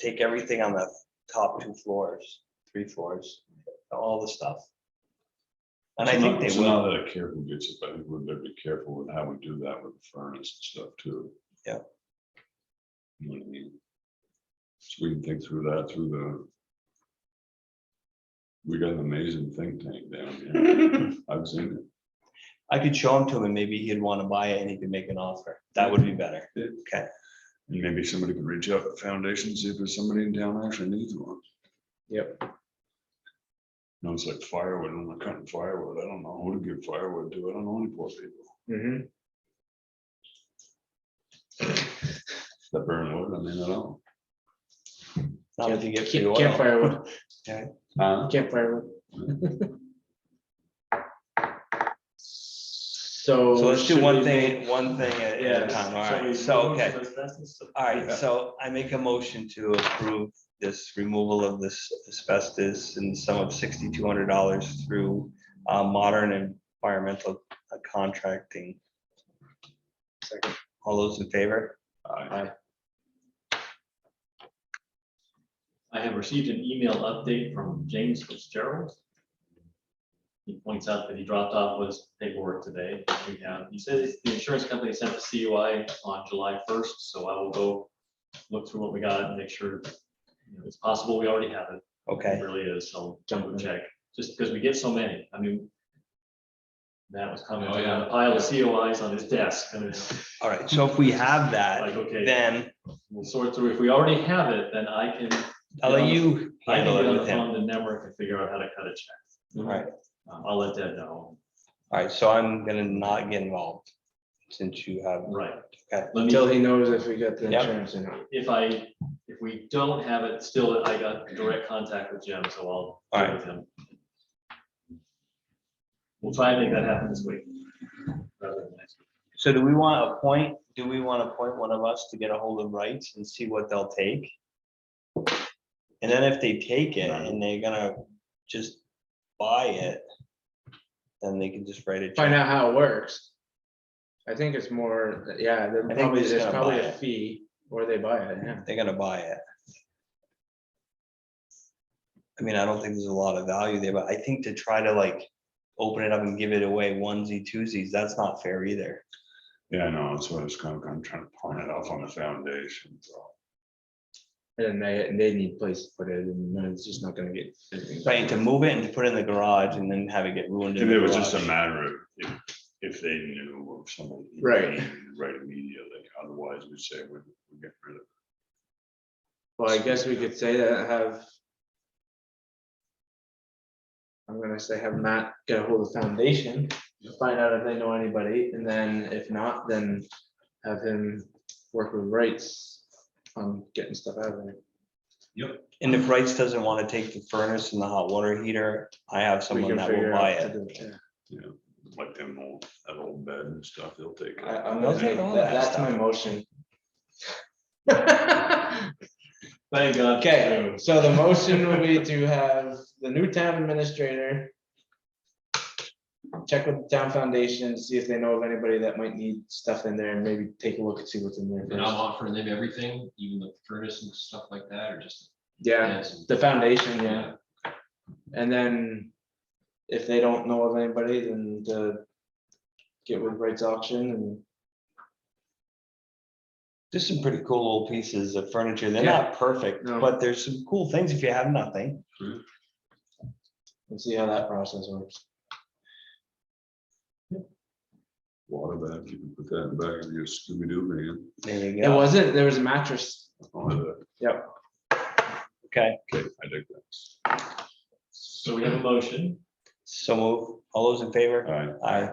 take everything on the top two floors, three floors, all the stuff. And I So think now- they so will, Now that I careful gets it, I think we're gonna be careful with how we do that with the furnace and stuff too. Yeah. You know what I mean? So we can think through that through the. We got an amazing think tank down here. I've seen it. I could show him to him and maybe he'd want to buy it and he could make an offer. That would be better. Okay. And maybe somebody could reach out to the foundation, see if there's somebody in town actually needs one. Yep. No, it's like firewood, I'm not cutting firewood, I don't know who to give firewood to, I don't know any poor people Mm-hmm. that burn wood, I mean, I don't. Not if you get free Camp- oil. Campfire wood, Ah. Huh? campfire wood. So. So let's do should one we thing, make- one thing at Yeah. a time. All we right. So, remove okay. asbestos? All right, Yeah. so I make a motion to approve this removal of this asbestos in the sum of sixty-two hundred dollars through uh, modern environmental uh, contracting. Second. All those in favor? I- I have received an email update from James Fitzgerald. He points out that he dropped off his paperwork today. We have, he says the insurance company sent the CUI on July first, so I will go look through what we got and make sure you know, it's possible we already have it. It Okay, Mm-hmm. really is. I'll jump and check, just because we get so many. I mean, Matt was commenting on a pile of COIs on his desk. and it's all right, so if we have that, Like, okay, then we'll sort through. If we already have it, then I can I'll let you I can handle get it on the with him. phone to Nemrick and figure out how to cut a check. All right, Um, I'll let Deb know. all right, so I'm gonna not get involved since you have, Right. Okay. Let me, Until he knows if we got the Yep. insurance or not. if I, if we don't have it, still, I got direct contact with Jim, so I'll. All right. deal with him. We'll try and make that happen this week. rather than next week. so do we want to appoint, do we want to appoint one of us to get a hold of rights and see what they'll take? And then if they take it and they're gonna just buy it, then they can just write it. Find out how it works. I think it's more, that- yeah, there think probably, they're just there's gonna probably buy a it. fee or they buy it, yeah. They're gonna buy it. I mean, I don't think there's a lot of value there, but I think to try to like open it up and give it away onesie twosies, that's not fair either. Yeah, I know, that's what I was kind of, I'm trying to pawn it off on the foundation, so. And then they, they need place to put it and then it's just not gonna get. Right, to move it and to put it in the garage and then have it get ruined. in If the it was just a garage. matter of, if, if they knew of somebody. Right. Right immediately, otherwise we'd say we're, we're getting rid of. it. Well, I guess we could say that have. I'm gonna say have Matt get a hold of the foundation, find out if they know anybody, and then if not, then have him work with rights on getting stuff out of there. And if Wrights doesn't want to take the furnace and the hot water heater, I have We someone can that figure will buy out to it. do it. Yeah, like them old, that old bed and stuff, they'll take I, it. I'm They'll gonna take take, all that- that that's stuff. my motion. Okay, Thank God. so the motion will be to have the new town administrator. Check with the town foundation, see if they know of anybody that might need stuff in there and maybe take a look and see what's in there And I'm first. offering them everything, even the furnace and stuff like that, or just. Yeah, the foundation, yeah, and then if they don't know of anybody, then the. Get with rights auction and. There's some pretty cool old pieces of furniture. They're Yeah. not perfect, No. but there's some cool things if you have nothing. And see how that process works. Water bed, you can put that in the back of your Scooby Doo van. There you It go. wasn't, there was a mattress I'll have that. Okay, Okay, I dig that. So we have a motion. so move. all those in favor? All right, Aye.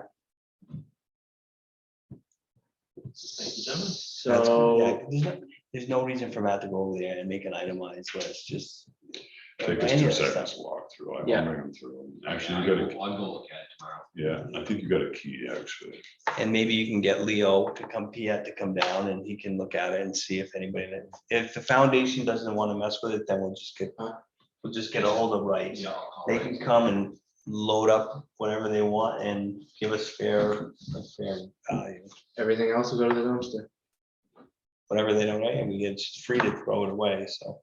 Thank you, gentlemen. That's- yeah, So, There's no- there's no reason for Matt to go over there and make an itemized list, just. take us any two of this seconds stuff. to walk through, I Yeah. will bring them through. Actually, I'll you got a, go I'll go look at it tomorrow. yeah, I think you got a key, actually. And maybe you can get Leo to come, he had to come down and he can look at it and see if anybody, if the foundation doesn't want to mess with it, then we'll just get, we'll just get a hold of rights. Yeah, I'll call they it. can come and load up whatever they want and give us fair, a fair value. everything else will go to the dumpster. Whatever they don't like, I mean, it's free to throw it away, so.